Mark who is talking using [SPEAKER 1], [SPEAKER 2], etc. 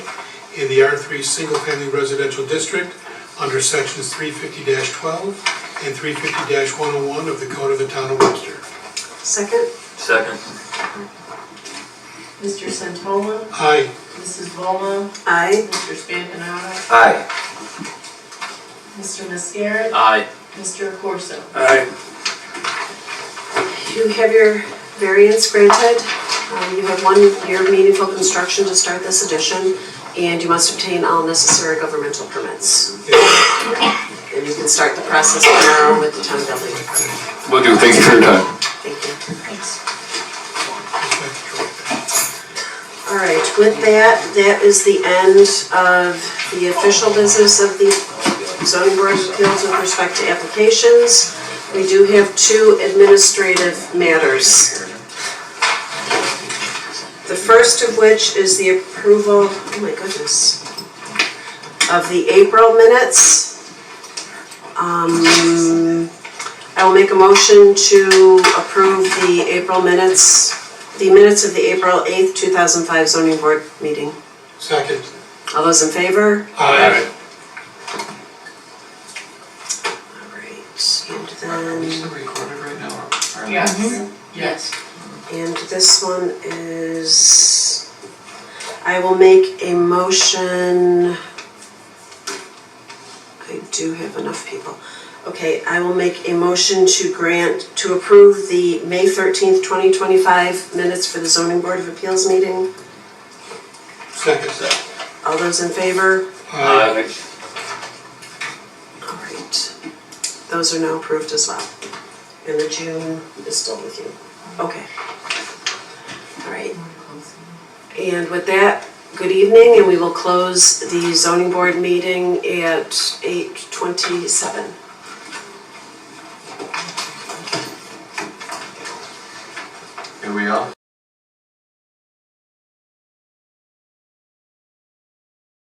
[SPEAKER 1] in the R3 Single Family Residential District under sections 350-12 and 350-101 of the Code of the Town of Webster.
[SPEAKER 2] Second,
[SPEAKER 3] Second.
[SPEAKER 4] Mr. Santola,
[SPEAKER 1] Aye.
[SPEAKER 4] Mrs. Bola,
[SPEAKER 2] aye.
[SPEAKER 4] Mr. Spampanato,
[SPEAKER 3] Aye.
[SPEAKER 4] Mr. Mascara,
[SPEAKER 3] Aye.
[SPEAKER 4] Mr. Corso.
[SPEAKER 3] Aye.
[SPEAKER 2] You have your variance granted. Um, You have one year of meaningful construction to start this addition, and you must obtain all necessary governmental permits. And you can start the process now with the town building department.
[SPEAKER 5] Will do, thank you for your time.
[SPEAKER 2] Thank you.
[SPEAKER 1] Thank
[SPEAKER 2] All right, with that, that is the end of the official business of the zoning board of appeals with respect to applications. We do have two administrative matters. The first of which is the approval, oh my goodness, of the April minutes. Um, I will make a motion to approve the April minutes the minutes of the April 8th, 2005 zoning board meeting.
[SPEAKER 1] you. Second.
[SPEAKER 2] All those in favor?
[SPEAKER 1] Aye.
[SPEAKER 2] All right, and then,
[SPEAKER 3] recorded right now?
[SPEAKER 4] Yes. Yes.
[SPEAKER 2] and this one is, I will make a motion. I do have enough people. Okay, I will make a motion to grant, to approve the May 13th, 2025 minutes for the zoning board of appeals meeting.
[SPEAKER 1] Second.
[SPEAKER 2] All those in favor?
[SPEAKER 1] Aye.
[SPEAKER 2] All right, those are now approved as well. And the June is still with you. Okay. All right, and with that, good evening, and we will close the zoning board meeting at 8:27.
[SPEAKER 3] Here we are.